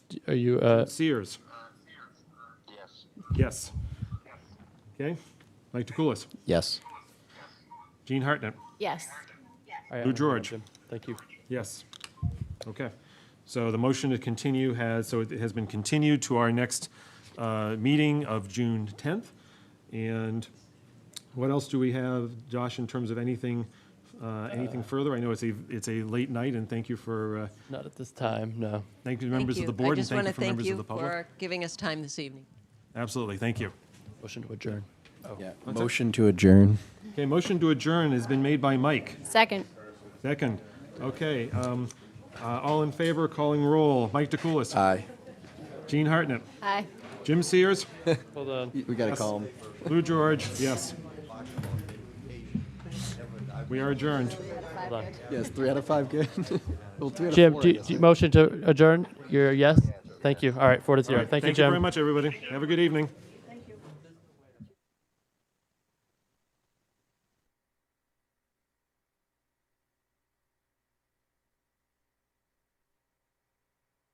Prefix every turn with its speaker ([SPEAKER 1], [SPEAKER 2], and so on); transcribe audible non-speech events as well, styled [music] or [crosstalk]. [SPEAKER 1] Are you, uh,
[SPEAKER 2] Sears?
[SPEAKER 3] Yes.
[SPEAKER 2] Yes. Okay. Mike DeCoulis?
[SPEAKER 4] Yes.
[SPEAKER 2] Gene Hartnett?
[SPEAKER 5] Yes.
[SPEAKER 1] I- I
[SPEAKER 2] Lou
[SPEAKER 1] don't have
[SPEAKER 2] George.
[SPEAKER 1] them. Thank you.
[SPEAKER 2] Yes. Okay. So the motion to continue has, so it has been continued to our next uh, meeting of June 10th. And what else do we have, Josh, in terms of anything, uh, anything further? I know it's a, it's a late night, and thank you for, uh,
[SPEAKER 1] Not at this time, no.
[SPEAKER 2] thank you to members of
[SPEAKER 6] Thank
[SPEAKER 2] the
[SPEAKER 6] you.
[SPEAKER 2] board and thank you for members of the
[SPEAKER 6] I just
[SPEAKER 2] public.
[SPEAKER 6] want to thank you for giving us time this evening.
[SPEAKER 2] Absolutely, thank you.
[SPEAKER 1] Motion to adjourn.
[SPEAKER 4] Yeah. Motion to adjourn.
[SPEAKER 2] Okay, motion to adjourn has been made by Mike.
[SPEAKER 5] Second.
[SPEAKER 2] Second. Okay, um, uh, all in favor, calling roll. Mike DeCoulis.
[SPEAKER 4] Aye.
[SPEAKER 2] Gene Hartnett.
[SPEAKER 5] Aye.
[SPEAKER 2] Jim Sears.
[SPEAKER 1] Hold on.
[SPEAKER 4] We gotta call [laughs] him.
[SPEAKER 2] Lou George, yes. We are adjourned.
[SPEAKER 4] Yes, three out of five good. [laughs] well, three out
[SPEAKER 1] Jim,
[SPEAKER 4] of four.
[SPEAKER 1] do
[SPEAKER 4] I
[SPEAKER 1] you,
[SPEAKER 4] guess.
[SPEAKER 1] do you- motion to adjourn? You're a yes? Thank you. All right, four to zero. Thank you,
[SPEAKER 2] Thank you very
[SPEAKER 1] Jim.
[SPEAKER 2] much, everybody. Have a good evening.